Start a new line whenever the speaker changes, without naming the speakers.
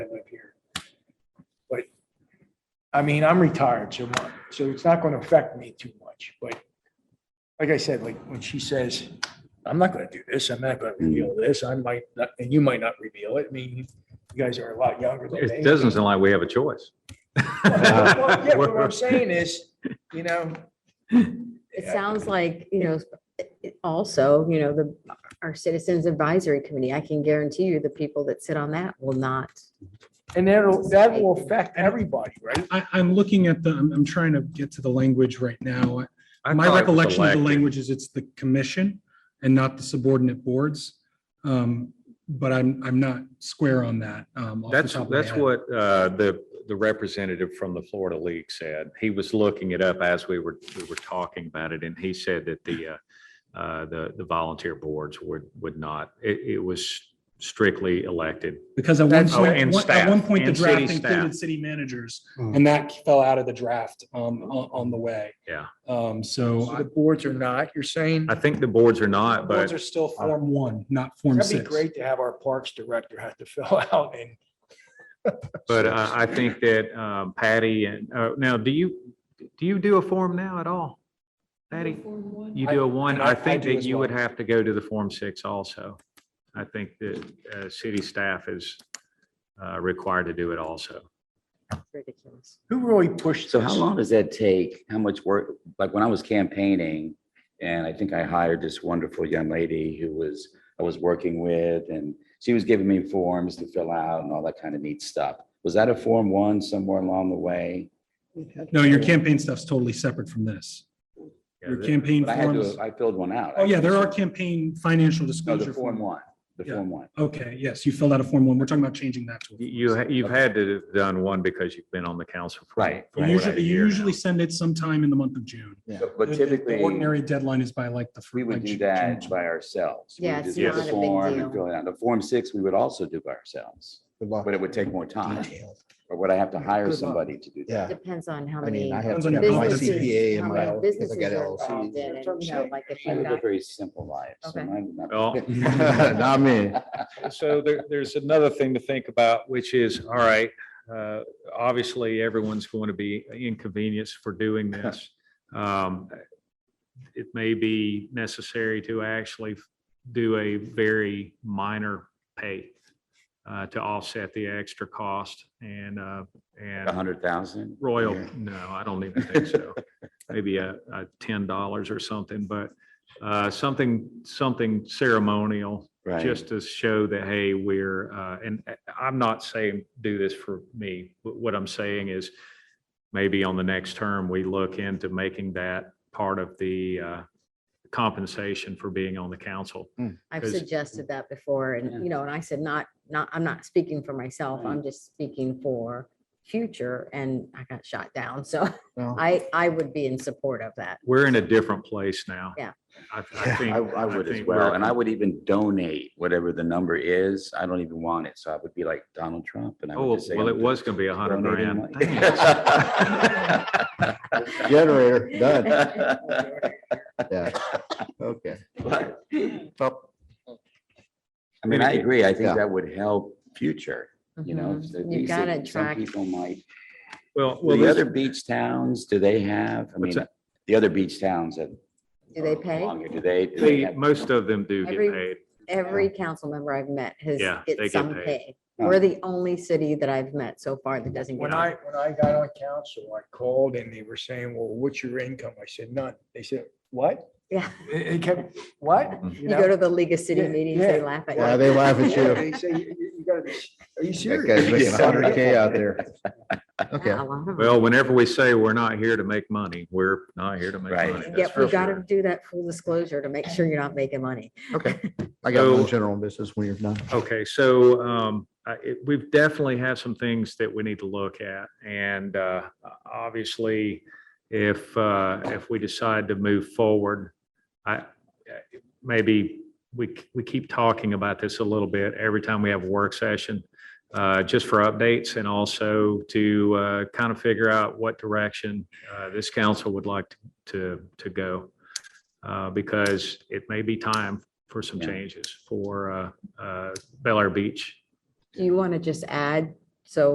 I mean, I'm retired, so, my- so it's not going to affect me too much, but like I said, like when she says, I'm not going to do this, I'm not going to reveal this, I might, not and you might not reveal it. I mean, you you guys are a lot younger than me.
It doesn't sound like we have a choice.
Well, Yeah, but what I'm saying is, you know,
It
Yeah.
sounds like, you know, it- also, you know, the, our Citizens Advisory Committee, I can guarantee you the people that sit on that will not.
and that'll, that will affect everybody, right?
I, I'm looking at the, I'm, I'm trying to get to the language right now.
I
My
thought it was
recollection of the
elected.
language is it's the commission and not the subordinate boards. Um, But I'm, I'm not square on that. um, off the
That's,
top of my
that's
head.
what uh, the, the representative from the Florida League said. He was looking it up as we were, we were talking about it, and he said that the, uh, uh, the, the volunteer boards would, would not, it, it was strictly elected.
Because at one
That's-
Oh, and
point, one- at one
staff,
point, the
and city
draft included
staff.
city managers
Mm.
and that fell out of the draft, um, on, on the way.
Yeah.
Um, so
So
I-
the boards are not, you're saying?
I think the boards are not,
boards
but
are still Form One, not Form
That'd be
Six.
great to have our parks director have to fill out and.
But I, I think that um, Patty and, uh, now, do you, do you do a form now at all? Patty, you do a one,
I-
I
I
think
do
that
as
you would
well.
have to go to the Form Six also. I think that uh, city staff is uh, required to do it also.
It's ridiculous.
Who really pushed
So how
this?
long does that take? How much work? Like when I was campaigning and I think I hired this wonderful young lady who was, I was working with and she was giving me forms to fill out and all that kind of neat stuff. Was that a form one somewhere along the way?
No, your campaign stuff's totally separate from this.
Yeah,
Your
that-
campaign
But I had
forms.
to, I filled one out.
Oh, yeah, there are campaign financial
No,
disclosure
the form
form.
one, the
Yeah.
form one.
Okay, yes, you filled out a form one. We're talking about changing that to. a form
You,
six.
ha- you've had to have done one because you've been on the council. for-
Right,
for more
You
than a
Usually, you
year now.
usually send it sometime in the month of June.
But-
The-
But
the- the
typically,
Ordinary deadline is by like the. fir-
we would
like
do
Ju-
that
June.
by ourselves. We
Yeah,
would
it's
just do
not
the
a big
form and
deal.
fill it out. The form six, we would also do by ourselves,
Good luck.
but it would take more time. Or would I have to hire
Good luck.
somebody to do that?
Yeah,
Depends on how
I
many
mean, I have
Depends
to
on
have
your
my
businesses,
CPA
how
and my,
many
because I
businesses
got
are
LLC.
involved in it, you know, like if
I
you've
live a
got
very simple life. so
Okay.
mine would not be-
Well,
Not me.
So there, there's another thing to think about, which is, all right, uh, obviously, everyone's going to be inconvenienced for doing this. Um, It may be necessary to actually do a very minor pay uh, to offset the extra cost and, uh,
A
and
hundred thousand?
Royal,
Yeah.
no, I don't even think so. Maybe a, a ten dollars or something, but, uh, something, something ceremonial
Right.
just to show that, hey, we're, uh, and I- I'm not saying do this for me. Wh- What I'm saying is maybe on the next term, we look into making that part of the uh, compensation for being on the council.
I've
'cause-
suggested that before
Yeah.
and, you know, and I said, not, not, I'm not speaking for myself. I'm just speaking for future and I got shot down. So
Well,
I, I would be in support of that.
We're in a different place now.
Yeah.
I I
Yeah,
I,
think.
I would as
think
well.
we're- oh,
And I would even donate whatever the number is. I don't even want it. So I would be like Donald Trump and I
Oh,
would just say.
well,
I'm
it was going to be a hundred
donating
grand.
money.
Dang it.
Generator, done. Yeah, okay.
But,
Well,
I mean, I agree. I think
Yeah.
that would help future, you know.
Mhm.
so at
You've
least
got to
it- Some
attract
people might,
Well, well,
well, the
this-
other beach towns, do they have, I
What's
mean, the other beach towns have.
Do they pay?
Longer, Do they? do they
they-
have-
most of them do get
Every-
paid.
Every council member I've met has,
Yeah, they
gets
get
some
paid.
pay.
Oh.
We're the only city that I've met so far that doesn't get
When
it.
I, when I got on council, I called and they were saying, well, what's your income? I said, none. They said, what?
Yeah.
It it kept,
Mm-hmm.
what?
You go to the League of City
Yeah,
meetings, they
yeah.
laugh at you.
Yeah, they laugh at
Yeah,
you.
They say, you you- you gotta be, are you
That guy's making
serious?
Yeah.
hundred K out there. Okay.
Yeah, a lot of them.
Well, whenever we say we're not here to make money, we're not here to make
Right.
money. that's
Yep, we
for
got
sure.
to do that full disclosure to make sure you're not making money.
I got
So-
one general business when you're done.
Okay, so um, I- it- we've definitely have some things that we need to look at. And uh, obviously, if, uh, if we decide to move forward, I, maybe we, we keep talking about this a little bit every time we have a work session, uh, just for updates and also to uh, kind of figure out what direction uh, this council would like to, to go. uh, Because it may be time for some
Yeah.
changes for uh, uh, Bel Air Beach.
Do you want to just add, so